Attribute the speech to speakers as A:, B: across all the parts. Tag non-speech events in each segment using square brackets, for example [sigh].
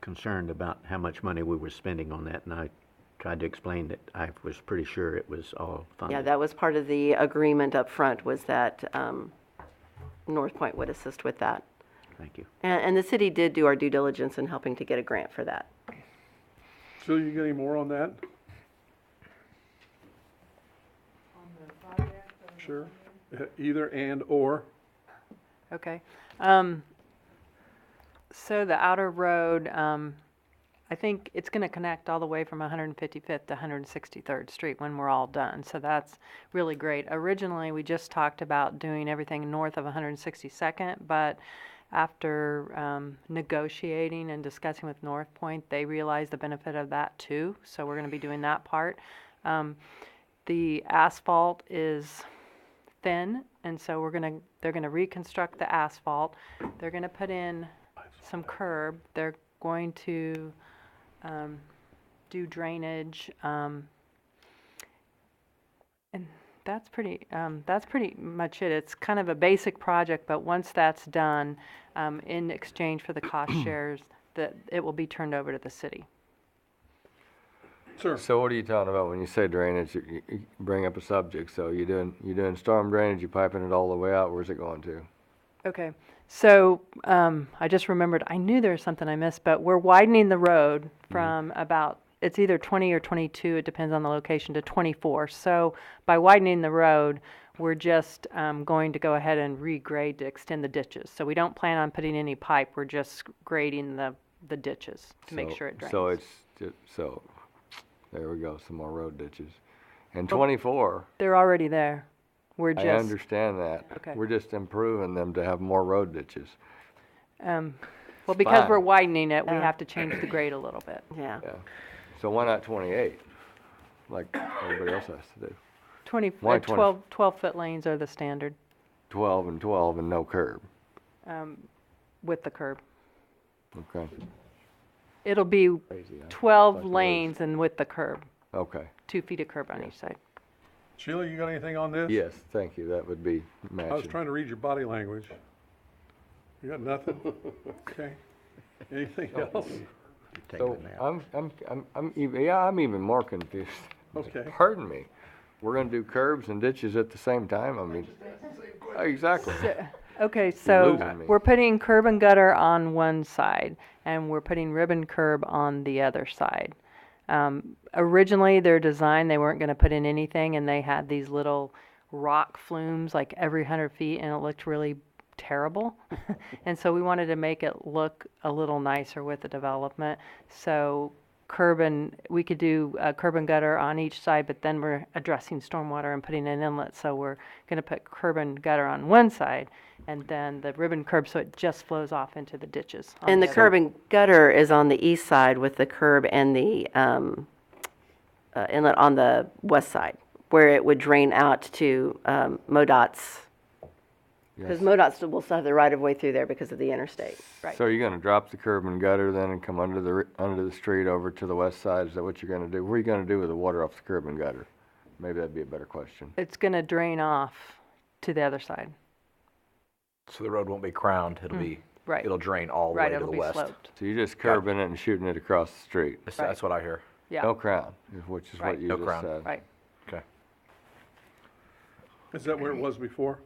A: concerned about how much money we were spending on that, and I tried to explain that I was pretty sure it was all funded.
B: Yeah, that was part of the agreement up front was that um, North Point would assist with that.
A: Thank you.
B: And, and the city did do our due diligence in helping to get a grant for that.
C: Jill, you got any more on that? Sure, Uh, either and or,
D: Okay. Um, so the outer road, um, I think it's gonna connect all the way from 155th to 163rd Street when we're all done, so that's really great. Originally, we just talked about doing everything north of 162nd, but after, um, negotiating and discussing with North Point, they realized the benefit of that too, so we're gonna be doing that part. Um, the asphalt is thin, and so we're gonna, they're gonna reconstruct the asphalt. They're gonna put in some curb. They're going to, um, do drainage, um, and that's pretty, um, that's pretty much it. It's kind of a basic project, but once that's done, um, in exchange for the cost shares, that it will be turned over to the city.
C: sure.
E: So what are you talking about when you say drainage? You, you- you bring up a subject, so you're doing, you're doing storm drainage, you're piping it all the way out, where's it going to?
D: Okay, so, um, I just remembered, I knew there was something I missed, but we're widening the road
E: Mm-hmm.
D: from about, it's either twenty or twenty-two, it depends on the location, to twenty-four. So by widening the road, we're just, um, going to go ahead and regrade to extend the ditches. So we don't plan on putting any pipe, we're just grading the, the ditches to make
E: So-
D: sure it drains.
E: So it's, ju- so, there we go, some more road ditches. And twenty-four,
D: They're already there, we're
E: I
D: Oh. just,
E: understand that.
D: Okay.
E: We're just improving them to have more road ditches.
D: um, well, because we're
E: fine.
D: widening it, we
B: Yeah.
D: have to change the grade a little bit.
B: Yeah.
E: Yeah. So why not twenty-eight? Like everybody else has to do.
D: Twenty,
E: Why
D: uh,
E: 20?
D: twelve, twelve-foot lanes are the standard.
E: Twelve and twelve and no curb,
D: with the curb.
E: okay?
D: It'll be
E: Crazy, huh?
D: twelve lanes and with the curb,
E: Okay,
D: two feet of curb on each side.
C: Sheila, you got anything on this?
E: yes, thank you, that would be
C: I was
E: matching.
C: trying to read your body language. You got [laughs] nothing? Okay. Anything else?
E: So I'm, I'm, I'm, I'm, ev- yeah, I'm even more confused.
C: Okay.
E: Pardon me. We're gonna do curbs and ditches at the same time? I mean, exactly.
D: [laughs] Uh, Okay, so
E: losing me.
D: we're putting curb and gutter on one side and we're putting ribbon curb on the other side. Um, originally, their design, they weren't gonna put in anything and they had these little rock flumes like every hundred feet and it looked really terrible. [laughs] And so we wanted to make it look a little nicer with the development. So curb and, we could do uh, curb and gutter on each side, but then we're addressing stormwater and putting an inlet. So we're going to put curb and gutter on one side and then the ribbon curb, so it just flows off into the ditches. Um, on
B: And the
D: other.
B: curb and gutter is on the east side with the curb and the um, uh, inlet on the west side, where it would drain out to um, MoDOT's. Because MoDOT's will still have the right of way through there because of the interstate. Right.
E: So you're gonna drop the curb and gutter then and come under the, ri- under the street over to the west side? Is that what you're gonna do? What are you gonna do with the water off the curb and gutter? Maybe that'd be a better question.
D: It's going to drain off to the other side.
F: So the road won't be crowned, it'll be,
D: Hmm. right.
F: it'll drain all the way
D: Right,
F: to the
D: it'll be
F: west.
D: sloped.
E: So you're just curbing it and shooting it across the street?
F: That's, that's what I hear.
E: No
D: Yeah,
E: crown, is- which is
D: Right.
E: what you
F: No
E: just
F: crown.
E: said.
D: right.
F: Okay.
C: Is that where it was before?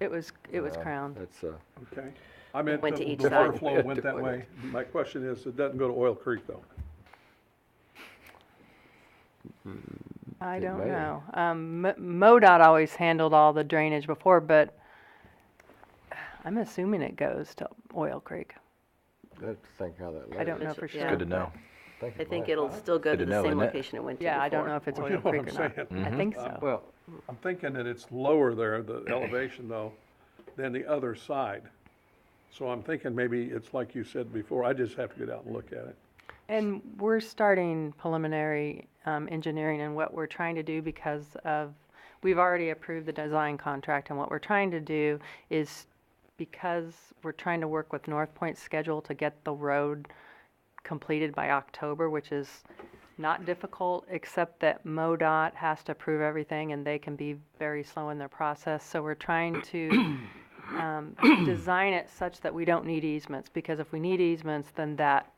D: It was, it was crowned.
E: That's, uh,
C: Okay. I meant
B: Went to
C: the
B: each
C: the
B: side.
C: water flow went that way. My question is, it doesn't go to Oil Creek though?
D: I
E: It
D: don't
E: may.
D: know. Um, M- MoDOT always handled all the drainage before, but I'm assuming it goes to Oil Creek.
E: I have to think how that.
D: I don't know
B: That's-
D: for
B: yeah.
D: sure.
F: Good to know.
B: I think it'll still go
F: Good
B: to the
F: to know,
B: same
F: isn't it?
B: location it went to
D: Yeah, I don't know
B: before. Mm-hmm.
D: if it's
C: Well, you know
D: Oil
C: what
D: Creek or
C: I'm
D: not.
C: saying.
D: I think so.
E: Well,
C: I'm thinking that it's lower there, the [clears throat] elevation though, than the other side. So I'm thinking maybe it's like you said before, I just have to get out and look at it.
D: And we're starting preliminary um, engineering and what we're trying to do because of, we've already approved the design contract. And what we're trying to do is, because we're trying to work with North Point's schedule to get the road completed by October, which is not difficult, except that MoDOT has to approve everything and they can be very slow in their process. So we're trying to um, design it such that we don't need easements, because if we need easements, then that